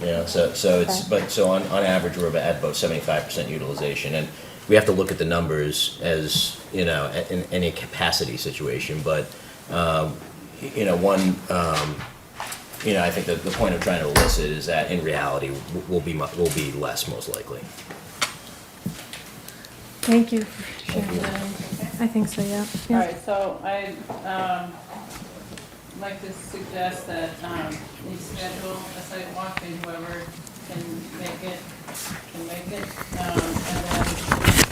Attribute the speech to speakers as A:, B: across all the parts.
A: You know, so, so it's, but, so on, on average, we're at about seventy-five percent utilization, and we have to look at the numbers as, you know, a- in any capacity situation, but, um, you know, one, um, you know, I think that the point I'm trying to elicit is that in reality, w- we'll be, mu- we'll be less most likely.
B: Thank you for sharing that. I think so, yeah.
C: All
B: Yeah.
C: right, so I'd um, like to suggest that um, you schedule a site walk, and whoever can make it, can make it. um, And then,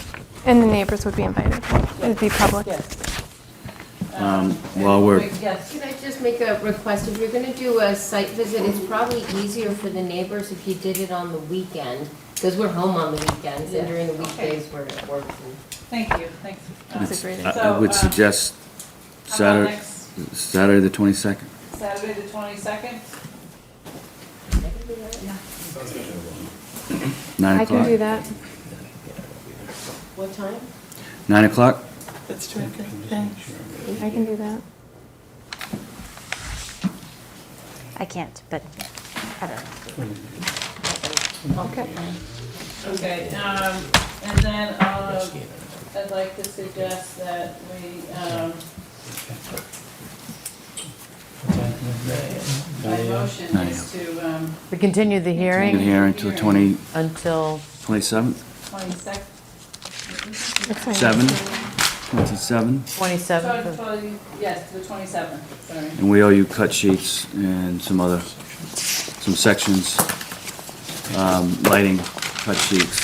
B: And the neighbors would be invited. It'd be public.
C: yes.
D: Um, while we're-
C: wait, Yes,
E: Can I just make a request? If you're gonna do a site visit, it's probably easier for the neighbors if you did it on the weekend, because we're home on the weekends, and during the weekdays, we're at work. and-
C: thank you, thanks.
B: That's a great
D: I
B: idea.
D: I would
C: So, uh,
D: suggest
C: How about
D: Saturday,
C: next
D: Saturday the 22nd.
C: Saturday, the 22nd?
D: Nine
B: I can
D: o'clock?
B: do that.
E: What time?
D: Nine o'clock?
B: I can do that.
F: I can't, but I don't know.
E: Okay.
C: Okay, um, and then uh, I'd like to suggest that we, um, my motion is to um,
G: We continue the
D: Been
G: hearing
D: here until 20,
G: until,
D: 27th,
C: 22nd.
B: That's fine.
D: 7, 27?
G: 27th, of-
C: Totally, Yes, to the 27th, sorry.
D: And we owe you cut sheets and some other, some sections, um, lighting, cut sheets.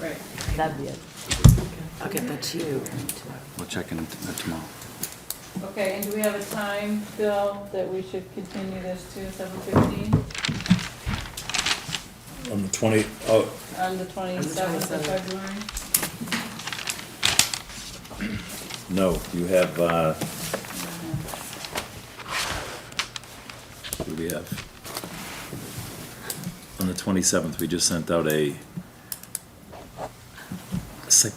C: Right.
G: that'd be it.
H: I'll get that to you.
D: We'll check in t- tomorrow.
C: Okay, and do we have a time, Bill, that we should continue this to 7:15
I: On the 20, oh,
C: on the 27th of
H: 27th.
C: February?
I: no, you have, uh, what do we have? On the 27th, we just sent out a site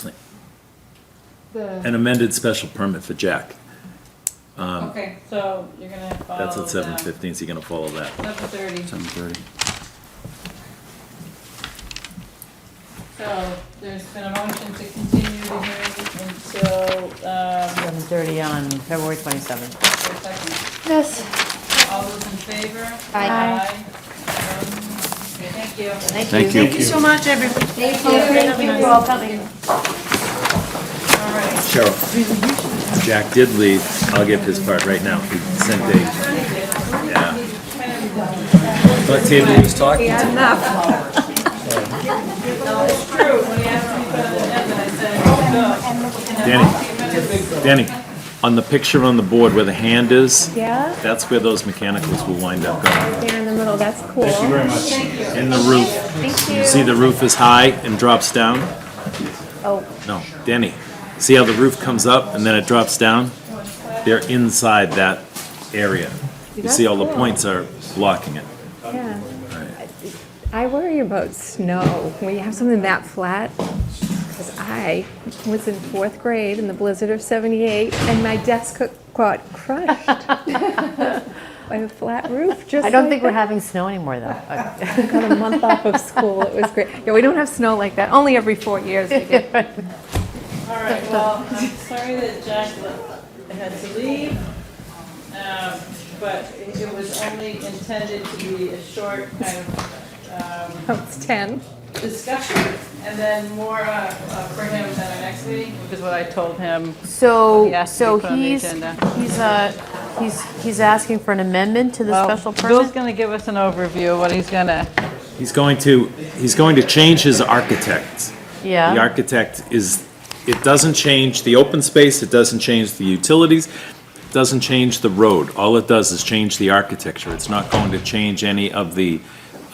I: plan, an amended special permit for Jack.
C: Okay, so you're gonna follow
I: Um, That's at
C: that.
I: 7:15, so you're gonna follow that.
C: 7:30,
D: 7:30.
C: so there's been a motion to continue the hearing until, um,
G: 7:30 on February 27th.
C: wait a second.
B: Yes.
C: All those in favor?
B: Aye. Aye.
C: Um, Okay, thank you.
D: Thank you.
H: Thank you so much, everybody.
E: Thank you. Thank you for all coming.
C: All right.
I: Cheryl, Jack did leave. I'll give his part right now. He sent a, yeah. But Taylor was talking to
C: True, when he asked me about the end, I said, oh,
I: Danny, Danny, on the picture on the board where the hand is,
B: Yeah,
I: that's where those mechanicals will wind up going,
B: there in the middle. That's cool.
I: in the roof.
B: Thank
I: You see the roof is high and drops down?
B: Oh.
I: No, Danny, see how the roof comes up and then it drops down? They're inside that area. You see all the points are blocking it.
J: Yeah. I worry about snow. When you have something that flat, because I was in fourth grade in the blizzard of 78, and my desk co- got crushed by a flat roof, just
G: I don't
J: like
G: think we're
J: that.
G: having snow anymore, though. Uh,
J: Got a month off of school. It was great. Yeah, we don't have snow like that. Only every four years we get
C: no. All right, well, I'm sorry that Jack le- had to leave, um, but it was only intended to be a short kind of um,
J: about 10.
C: discussion, and then more uh, uh, for him at our next meeting, which is what I told him.
G: So,
C: Yes,
G: so
C: we put on the
G: he's,
C: agenda.
G: he's, uh, he's, he's asking for an amendment to the special
C: Bill's
G: permit?
C: gonna give us an overview of what he's gonna,
I: He's going to, he's going to change his architect. The
G: Yeah,
I: architect is, it doesn't change the open space, it doesn't change the utilities, it doesn't change the road. All it does is change the architecture. It's not going to change any of the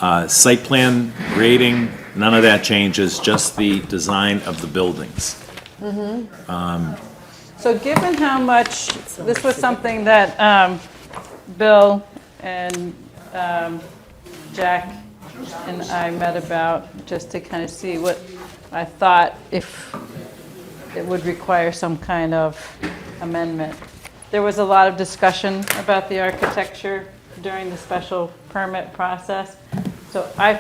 I: uh, site plan, grading, none of that changes, just the design of the buildings.
C: So given how much, this was something that um, Bill and um, Jack and I met about, just to kind of see what I thought if it would require some kind of amendment. There was a lot of discussion about the architecture during the special permit process, So I